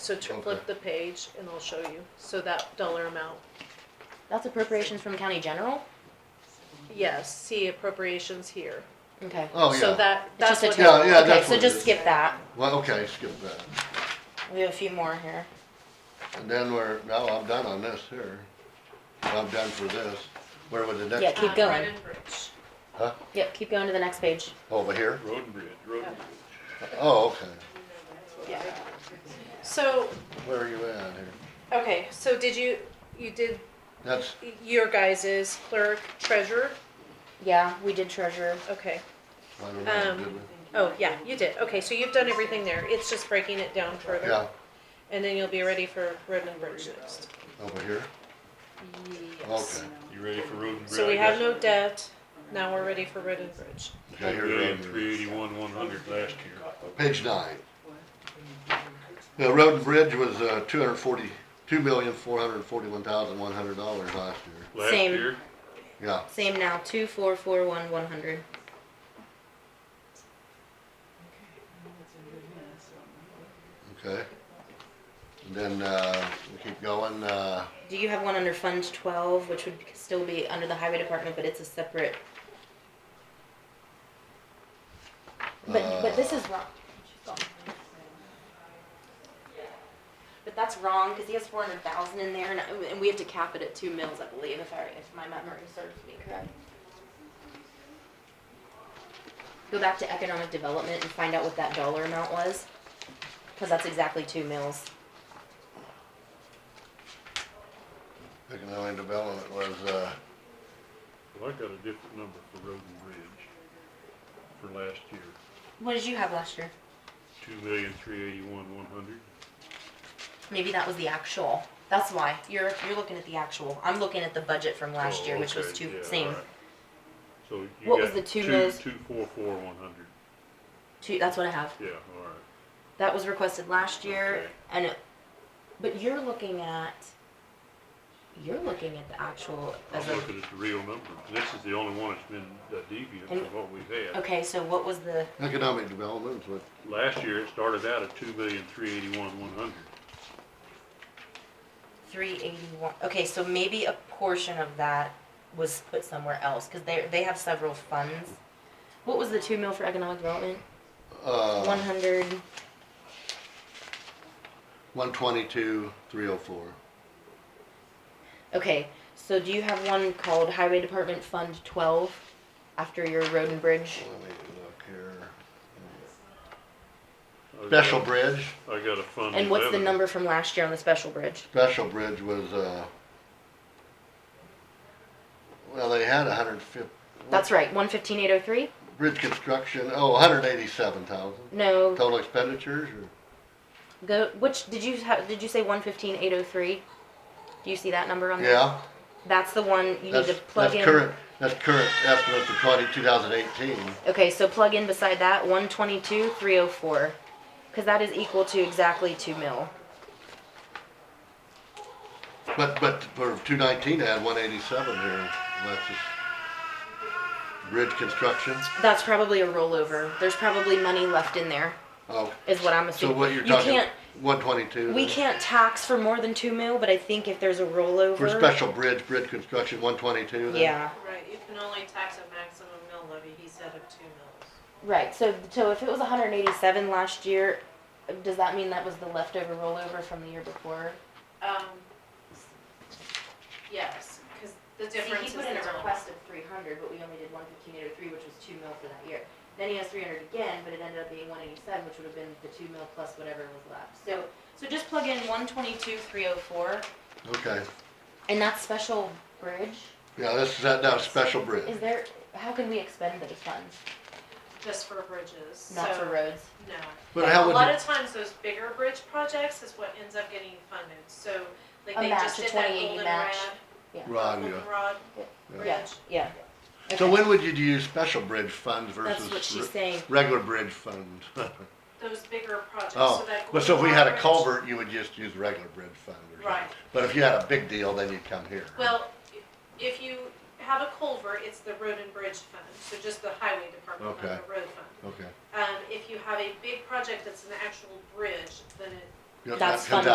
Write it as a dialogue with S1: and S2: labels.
S1: So to flip the page and I'll show you. So that dollar amount.
S2: That's appropriations from county general?
S1: Yes, see appropriations here.
S2: Okay.
S1: So
S3: Oh, yeah.
S1: that,
S2: It's
S1: that's
S2: just a
S1: what.
S2: total.
S3: Yeah, yeah,
S2: Okay,
S3: that's
S2: so
S3: what it
S2: just
S3: is.
S2: skip that.
S3: Well, okay, skip that.
S2: We have a few more here.
S3: And then we're, now I'm done on this here. I'm done for this. Where would the next?
S2: Yeah, keep
S1: Uh,
S2: going.
S1: Road and Bridge.
S3: Huh?
S2: Yep, keep going to the next page.
S3: Over here?
S4: Road and bridge, road and bridge.
S3: Oh, okay.
S1: Yeah. So,
S3: Where are you at here?
S1: okay, so did you, you did
S3: That's,
S1: your guys' clerk, treasurer?
S2: Yeah, we did treasurer.
S1: Okay.
S3: I don't know,
S1: Um,
S3: did we?
S1: Oh, yeah, you did. Okay, so you've done everything there. It's just breaking it down further.
S3: Yeah,
S1: And then you'll be ready for Road and Bridge next.
S3: over here?
S1: Yes.
S3: Okay.
S4: You ready for road and bridge?
S1: So we have no debt. Now we're ready for Road and Bridge.
S3: Okay, here it is.
S4: three eighty-one, one hundred last year.
S3: Page nine. The road and bridge was, uh, two hundred forty, two million, four hundred forty-one thousand, one hundred dollars last year.
S4: Last
S2: Same.
S4: year,
S3: Yeah,
S2: Same now, two, four, four, one, one hundred.
S3: okay. And then, uh, we keep going, uh,
S2: Do you have one under Fund Twelve, which would still be under the Highway Department, but it's a separate? But, but this is wrong. But that's wrong, cause he has four hundred thousand in there, and, and we have to cap it at two mils, I believe, if I, if my memory serves me correct. Go back to economic development and find out what that dollar amount was, cause that's exactly two mils.
S3: economic development was, uh,
S4: well, I got a different number for road and bridge for last year,
S2: What did you have last year?
S4: two million, three eighty-one, one hundred.
S2: Maybe that was the actual. That's why you're you're looking at the actual. I'm looking at the budget from last
S4: Oh,
S2: year, which was two same.
S4: So you
S2: What was
S4: got
S2: the two
S4: two,
S2: mills?
S4: two, four, four, one hundred,
S2: Two, that's what I have.
S4: yeah, all right.
S2: That was requested last year,
S4: Okay.
S2: and it, but you're looking at you're looking at the actual as
S4: I'm
S2: a.
S4: looking at the real number, this is the only one that's been uh, deviant
S2: And-
S4: from what we've had.
S2: Okay, so what was the?
S3: economic development was
S4: Last year, it started out at two million, three eighty-one, one hundred.
S2: 381. Okay, so maybe a portion of that was put somewhere else because they they have several funds. What was the two mil for economic development?
S3: Uh,
S2: One hundred.
S3: 122, 304.
S2: Okay, so do you have one called Highway Department Fund Twelve after your road and bridge?
S3: Let me look here.
S4: I got-
S3: Special Bridge,
S4: I got a fund.
S2: And what's the
S4: 11.
S2: number from last year on the special bridge?
S3: Special Bridge was, uh, well, they had 150,
S2: That's right, one fifteen eight oh three?
S3: bridge construction, oh, 187,000.
S2: No,
S3: Total expenditures, or,
S2: go, which, did you have, did you say one fifteen eight oh three? Do you see that number on there?
S3: yeah,
S2: That's the one you need
S3: that's,
S2: to
S3: that's
S2: plug in.
S3: current, that's current estimate for 20 2018.
S2: Okay, so plug in beside that, one twenty-two three oh four, cause that is equal to exactly two mil.
S3: But, but for 219, they had 187 here, that's just bridge construction.
S2: That's probably a rollover, there's probably money left in there,
S3: Oh,
S2: is what I'm
S3: so
S2: assuming.
S3: what you're
S2: You
S3: talking,
S2: can't-
S3: 122?
S2: We can't tax for more than two mil, but I think if there's a rollover.
S3: For special bridge, bridge construction, 122 then?
S2: Yeah,
S1: Right, you can only tax a maximum mill levy, he said of two mills.
S2: right, so, so if it was hundred and eighty-seven last year, does that mean that was the leftover rollover from the year before?
S1: Um, yes, because the difference is the dollar.
S2: of three hundred, but we only did one fifteen eight oh three, which was two mil for that year. Then he has three hundred again, but it ended up being one eighty-seven, which would have been the two mil plus whatever was left. So, so just plug in one twenty-two three oh four,
S3: Okay,
S2: and that's special bridge,
S3: yeah, this is, that, that's special bridge.
S2: is there, how can we expend those funds,
S1: Just for bridges,
S2: not for
S1: so-
S2: roads?
S1: No.
S3: But how
S1: A
S3: would,
S1: lot
S3: the-
S1: of times those bigger bridge projects is what ends up getting funded, so like
S2: A
S1: they
S2: match,
S1: just
S2: a
S1: did that
S2: 2080
S1: goldenrod,
S2: match.
S3: Ron, yeah.
S1: goldenrod
S2: Yeah,
S1: bridge.
S2: yeah.
S3: So
S2: Okay.
S3: when would you use special bridge funds versus?
S2: That's what she's
S3: re-
S2: saying.
S3: Regular bridge fund.
S1: Those bigger projects, so
S3: Oh,
S1: that.
S3: but so if we had
S1: goldenrod
S3: a
S1: bridge-
S3: culvert, you would just use regular bridge fund or something.
S1: Right.
S3: But if you had a big deal, then you'd come here.
S1: Well, if you have a culvert, it's the road and bridge fund, so just the highway department, not
S3: Okay.
S1: the road fund.
S3: Okay,
S1: Um, if you have a big project that's an actual bridge, then it
S3: Yep, that
S2: That's
S3: comes
S2: funded